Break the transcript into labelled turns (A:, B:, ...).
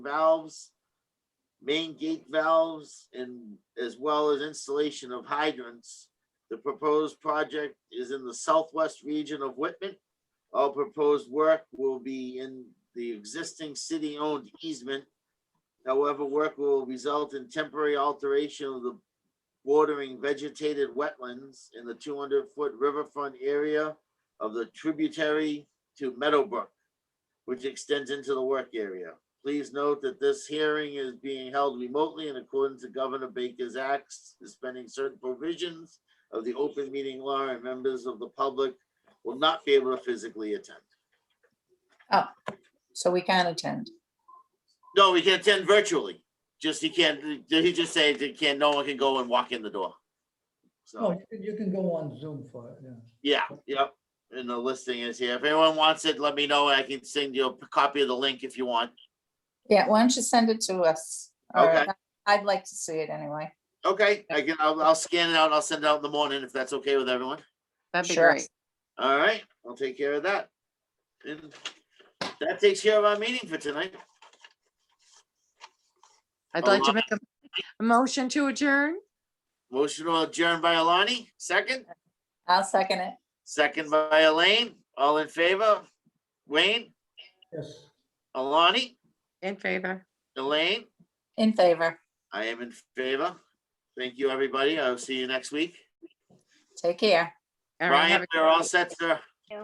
A: valves, main gate valves, and as well as installation of hydrants. The proposed project is in the southwest region of Whitman. All proposed work will be in the existing city-owned easement. However, work will result in temporary alteration of the bordering vegetated wetlands in the two hundred foot riverfront area of the tributary to Meadowbrook, which extends into the work area. Please note that this hearing is being held remotely in accordance with Governor Baker's acts, suspending certain provisions of the open meeting law, and members of the public will not be able to physically attend.
B: So we can attend.
A: No, he can attend virtually, just he can't, did he just say he can't, no one can go and walk in the door?
C: Oh,
A: So,
C: you can, you can go on Zoom for it, yeah.
A: yeah, yep, and the listing is here. If anyone wants it, let me know, I can send you a copy of the link if you want.
B: Yeah, why don't you send it to us? or
A: Okay.
B: I'd like to see it anyway.
A: Okay, I can, I'll, I'll scan it out, and I'll send it out in the morning if that's okay with everyone.
D: That'd be
B: Sure.
D: great.
A: All right, I'll take care of that. And that takes care of our meeting for tonight.
D: I'd
A: A
D: like
A: lot.
D: to make a, a motion to adjourn.
A: Motion to adjourn by Alani, second,
B: I'll second it.
A: second by Elaine, all in favor? Wayne,
C: Yes.
A: Alani,
D: In favor.
A: Elaine,
B: In favor.
A: I am in favor. Thank you, everybody. I'll see you next week.
B: Take care.
D: All right,
A: Brian,
D: have a-
A: we're all set, sir.